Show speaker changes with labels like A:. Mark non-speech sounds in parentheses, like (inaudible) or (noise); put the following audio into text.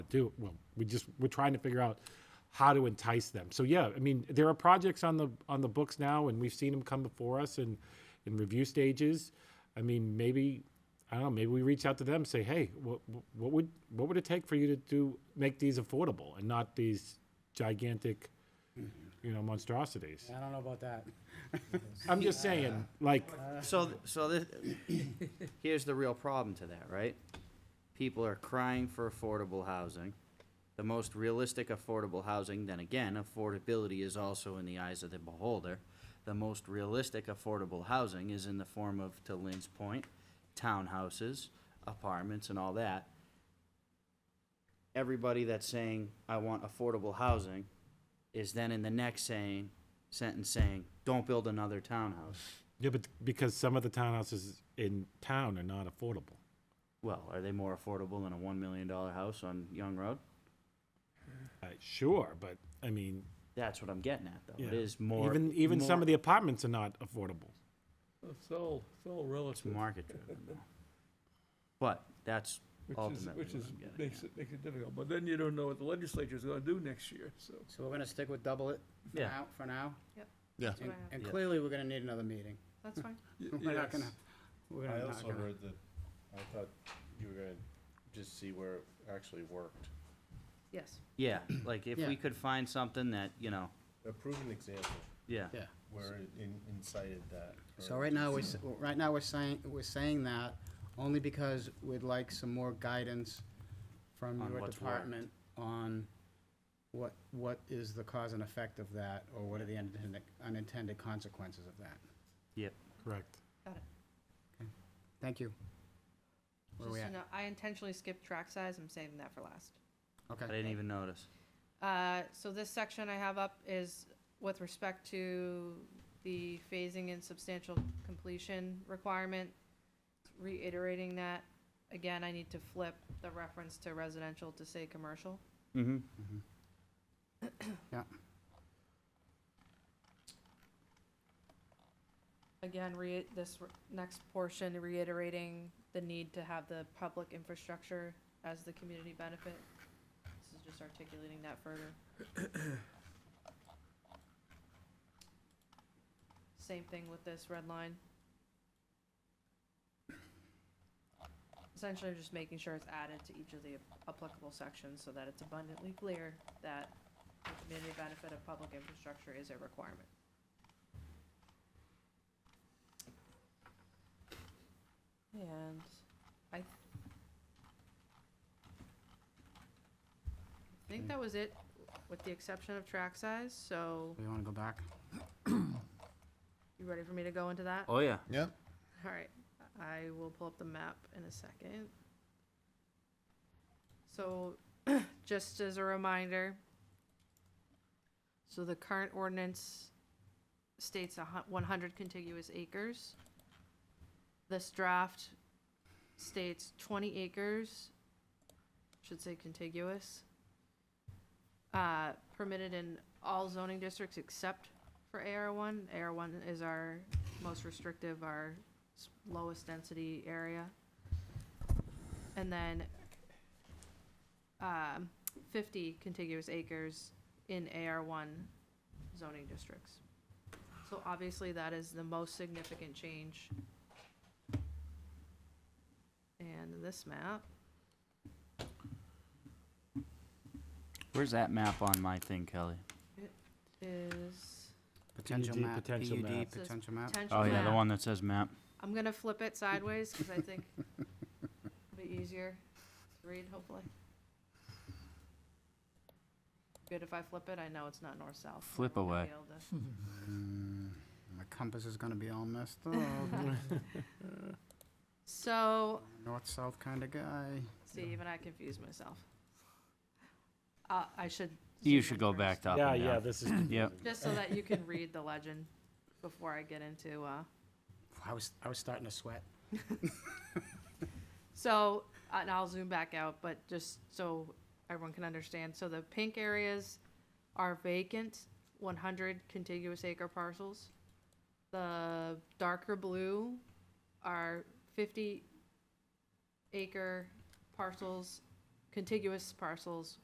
A: do, well, we just, we're trying to figure out how to entice them. So yeah, I mean, there are projects on the, on the books now and we've seen them come before us and in review stages. I mean, maybe, I don't know, maybe we reach out to them, say, hey, what, what would, what would it take for you to do, make these affordable and not these gigantic, you know, monstrosities?
B: I don't know about that.
A: I'm just saying, like,
C: So, th- so this, (coughs) here's the real problem to that, right? People are crying for affordable housing. The most realistic affordable housing, then again, affordability is also in the eyes of the beholder. The most realistic affordable housing is in the form of, to Lynn's point, townhouses, apartments and all that. Everybody that's saying, I want affordable housing, is then in the next saying, sentence saying, don't build another townhouse.
A: yeah, but because some of the townhouses in town are not affordable.
C: Well, are they more affordable than a one million dollar house on Young Road?
A: Uh, sure, but I mean,
C: That's what I'm getting at, though. It
A: yeah.
C: is more
A: Even even some
C: more-
A: of the apartments are not affordable.
D: It's all, it's all
C: it's
D: relative,
C: market driven. though. But that's
D: which is,
C: ultimately
D: which is,
C: what I'm getting
D: makes
C: at.
D: it, makes it difficult. But then you don't know what the legislature's gonna do next year, so.
B: So we're gonna stick with double it for
C: Yeah.
B: now, for now?
E: Yeah.
B: And- And
C: Yeah.
B: clearly, we're gonna need another meeting. (laughs)
F: That's fine.
C: (laughs)
D: y-
B: We're not
D: yes.
B: gonna, we're
E: I
B: gonna, not
E: also
B: gonna-
E: heard that, I thought you were gonna just see where it actually worked.
F: Yes.
C: Yeah, like if
B: Yeah.
C: we could find something that you know,
E: A proven example
C: yeah,
B: yeah.
E: where it in- incited that.
B: So
E: or-
B: right now, we're, s- right now, we're saying, we're saying that only because we'd like some more guidance from
C: On
B: your
C: what's worked.
B: department on what, what is the cause and effect of that, or what are the unintended, unintended consequences of that.
C: yep.
A: Correct.
F: Got it.
B: Thank you. Where are
F: Just
B: we
F: so
B: at?
F: you know, I intentionally skipped track size. I'm saving that for last.
C: I
B: Okay.
C: didn't even notice.
F: Uh, So this section I have up is with respect to the phasing and substantial completion requirement. Reiterating that, again, I need to flip the reference to residential to say commercial.
C: Mm-hmm.
F: Again, re, this r- next portion reiterating the need to have the public infrastructure as the community benefit. This is just articulating that further. Same thing with this red line. Essentially, I'm just making sure it's added to each of the applicable sections so that it's abundantly clear that the community benefit of public infrastructure is a requirement. And I th- I think that was it, with the exception of track size, so
B: We wanna go back?
F: you ready for me to go into that?
C: Oh yeah.
E: Yep.
F: All right, I will pull up the map in a second. So, (clears throat) just as a reminder, so the current ordinance states a hu- one hundred contiguous acres. This draft states twenty acres, should say contiguous, uh, permitted in all zoning districts except for AR one. AR one is our most restrictive, our s- lowest density area. And then, um, fifty contiguous acres in AR one zoning districts. So obviously, that is the most significant change. And this map,
C: Where's that map on my thing, Kelly?
F: it is
B: Potential
A: PUD,
B: map,
A: potential
B: PUD,
A: map.
F: Says
B: potential map.
F: potential
C: Oh yeah, the
F: map.
C: one that says map.
F: I'm gonna flip it sideways because I think it'll be easier to read, hopefully. Good if I flip it, I know it's not north-south. so I
C: Flip
F: won't be
C: away.
F: able to-
B: Mm, My compass is gonna be all messed up.
F: So,
B: North-south kinda guy.
F: see, even I confused myself. Uh, I should.
C: You
F: zoom
C: should
F: in
C: go
F: first,
C: back to up
A: yeah,
C: and
A: yeah.
C: down.
A: This is
C: Yep.
F: Just so that you can read the legend before I get into, uh,
B: I was, I was starting to sweat.
F: So, and I'll zoom back out, but just so everyone can understand, so the pink areas are vacant, one hundred contiguous acre parcels. The darker blue are fifty acre parcels contiguous parcels